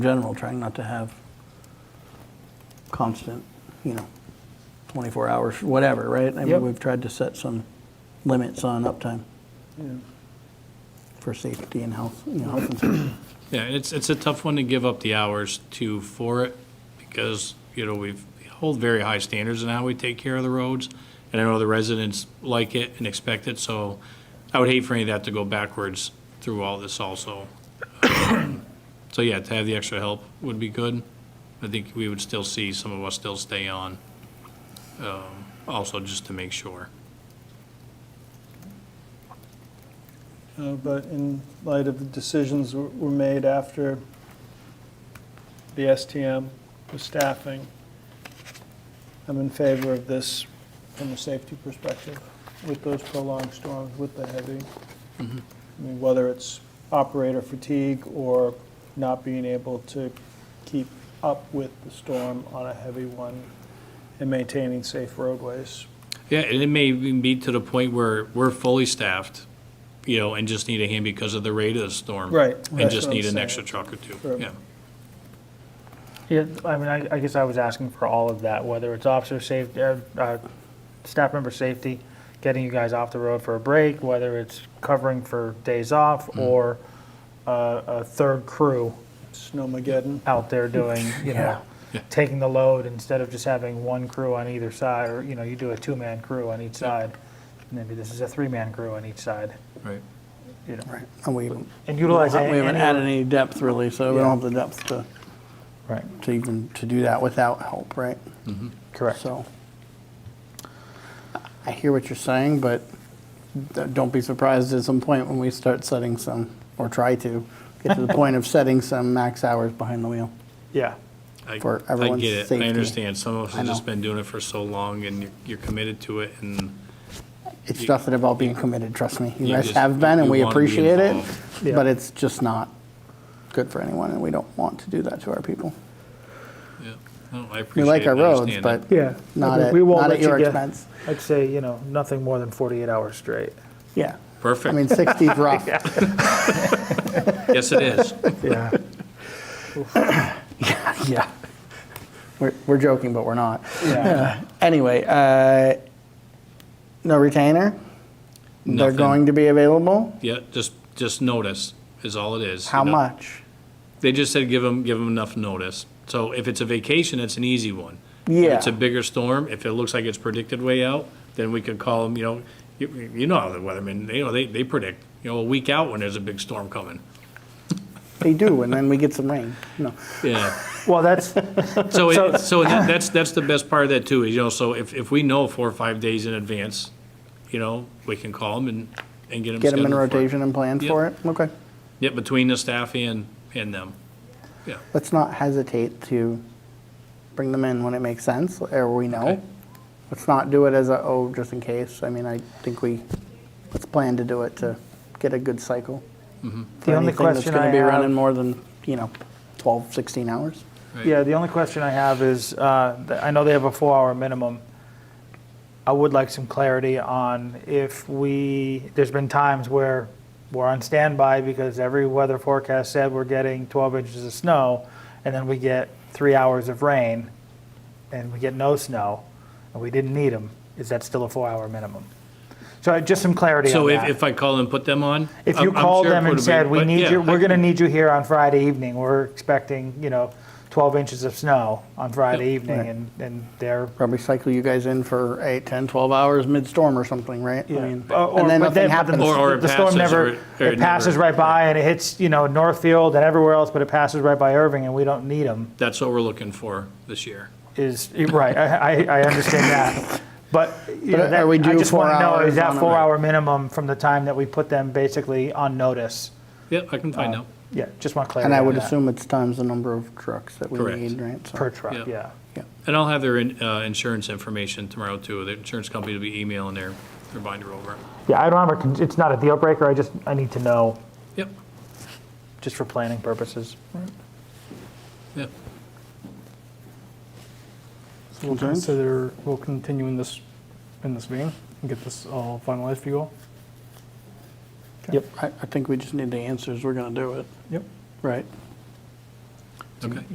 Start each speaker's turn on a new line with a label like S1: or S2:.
S1: general, trying not to have constant, you know, 24 hours, whatever, right? I
S2: Yep.
S1: mean, we've tried to set some limits on uptime for safety and health, you know, health and safety.
S3: Yeah, it's, it's a tough one to give up the hours to for it because, you know, we've we hold very high standards in how we take care of the roads. And I know the residents like it and expect it, so I would hate for any of that to go backwards through all this also. So yeah, to have the extra help would be good. I think we would still see some of us still stay on, um, also just to make sure.
S2: Uh, But in light of the decisions were- were made after the STM with staffing, I'm in favor of this from a safety perspective with those prolonged storms, with the heavy. I mean, whether it's operator fatigue or not being able to keep up with the storm on a heavy one and maintaining safe roadways.
S3: Yeah, and it may even be to the point where we're fully staffed, you know, and just need a hand because of the rate of the storm.
S2: Right,
S3: And
S2: that's
S3: just
S2: what I'm
S3: need an
S2: saying.
S3: extra truck or two,
S2: Sure.
S3: yeah.
S4: Yeah, I mean, I, I guess I was asking for all of that, whether it's officer safety, uh, uh, staff member safety, getting you guys off the road for a break, whether it's covering for days off,
S3: Mm.
S4: or uh, a third crew
S2: Snowmageddon.
S4: out there doing, you know,
S3: Yeah.
S4: taking the load instead of just having one crew on either side, or, you know, you do a two-man crew on each side. Maybe this is a three-man crew on each side,
S3: Right.
S4: you know,
S1: Right. And we haven't
S4: and
S1: we
S4: utilize.
S1: haven't added any depth really, so we
S4: Yeah.
S1: don't have the depth to,
S4: Right,
S1: to even, to do that without help, right?
S3: Mm-hmm.
S4: correct.
S1: So I hear what you're saying, but d- don't be surprised at some point when we start setting some, or try to, get to the point of setting some max hours behind the wheel.
S4: Yeah.
S3: I-
S1: For everyone's
S3: I get it,
S1: safety.
S3: I understand, some of us
S1: I
S3: have just
S1: know.
S3: been doing it for so long and you're- you're committed to it and.
S1: It's just that about being committed, trust me. You
S3: You
S1: guys
S3: just-
S1: have been, and
S3: you
S1: we
S3: wanna be
S1: appreciate it,
S3: involved.
S4: Yeah.
S1: but it's just not good for anyone, and we don't want to do that to our people.
S3: yeah, no, I
S1: We
S3: appreciate
S1: like
S3: it,
S1: our
S3: I
S1: roads,
S3: understand
S1: but
S3: it.
S4: Yeah.
S1: not
S4: Okay,
S1: at,
S4: we won't
S1: not
S4: let
S1: at your
S4: you get-
S1: expense.
S4: I'd say, you know, nothing more than 48 hours straight.
S1: Yeah. I mean,
S3: Perfect,
S1: 60 is rough.
S3: yes, it is.
S4: Yeah.
S1: Yeah. We're, we're joking, but we're not.
S4: Yeah.
S1: Uh, Anyway, uh, no retainer? They're
S3: Nothing.
S1: going to be available?
S3: Yeah, just, just notice is all it is. you
S1: How
S3: know.
S1: much?
S3: They just said give them, give them enough notice. So if it's a vacation, it's an easy one. If
S1: Yeah.
S3: it's a bigger storm, if it looks like it's predicted way out, then we could call them, you know, you, you know how the weathermen, they, you know, they, they predict, you know, a week out when there's a big storm coming.
S1: They do, and then we get some rain. No.
S3: Yeah.
S4: Well, that's,
S3: So,
S4: So-
S3: it- so that- that's, that's the best part of that too, is, you know, so if, if we know four or five days in advance, you know, we can call them and, and get them
S1: Get them in
S3: scheduled for it.
S1: rotation and plan
S3: Yep.
S1: for it? Okay.
S3: Yeah, between the staff and, and them. Yeah.
S1: Let's not hesitate to bring them in when it makes sense, or we
S3: Okay.
S1: know. Let's not do it as a, oh, just in case. I mean, I think we, let's plan to do it to get a good cycle.
S3: Mm-hmm.
S4: The only question
S1: going
S4: I
S1: to be
S4: have-
S1: running more than, you know, 12, 16 hours.
S3: Right.
S4: yeah, the only question I have is, uh, th- I know they have a four-hour minimum. I would like some clarity on if we, there's been times where we're on standby because every weather forecast said we're getting 12 inches of snow, and then we get three hours of rain, and we get no snow, and we didn't need them. Is that still a four-hour minimum? So uh, just some clarity on
S3: So if,
S4: that.
S3: if I call and put them on?
S4: If
S3: I'm-
S4: you
S3: I'm
S4: called
S3: sure it
S4: them and
S3: would've
S4: said,
S3: been-
S4: we
S3: but
S4: need
S3: yeah,
S4: you,
S3: I
S4: we're going to
S3: can-
S4: need you here on Friday evening, we're expecting, you know, 12 inches of snow on Friday evening,
S1: Right.
S4: and, and they're,
S1: Probably cycle you guys in for eight, 10, 12 hours mid-storm or something, right? I
S4: Yeah.
S1: mean,
S4: Uh, or-
S1: And then
S4: but
S1: nothing
S4: but the-
S1: happens.
S3: Or- or it
S4: The storm
S3: passes, or-
S4: never,
S3: or it
S4: it passes
S3: never-
S4: right by, and it hits, you know, Northfield and everywhere else, but it passes right by Irving, and we don't need them,
S3: That's what we're looking for this year.
S4: is, right, I, I I understand that. But, you know,
S1: But
S4: that-
S1: are we
S4: I
S1: due
S4: just
S1: four
S4: want to know,
S1: hours
S4: is
S1: on
S4: that
S1: a-
S4: four-hour minimum from the time that we put them basically on notice?
S3: Yeah, I can
S4: Oh.
S3: find out.
S4: Yeah, just want clarity
S1: And I
S4: on
S1: would
S4: that.
S1: assume it's times the number of trucks that we
S3: Correct.
S1: need, right? So-
S4: Per
S3: Yeah.
S4: truck, yeah.
S1: yeah.
S3: And I'll have their in- uh, insurance information tomorrow, too. The insurance company will be emailing their their binder over.
S4: Yeah, I don't have a, con- it's not a deal breaker, I just, I need to know,
S3: Yep,
S4: just for planning purposes.
S3: yep.
S5: So we'll consider, we'll continue in this, in this meeting and get this all finalized for you all.
S4: Yep.
S1: I, I think we just need the answers, we're going to do it,
S5: Yep.
S1: right?
S3: Okay.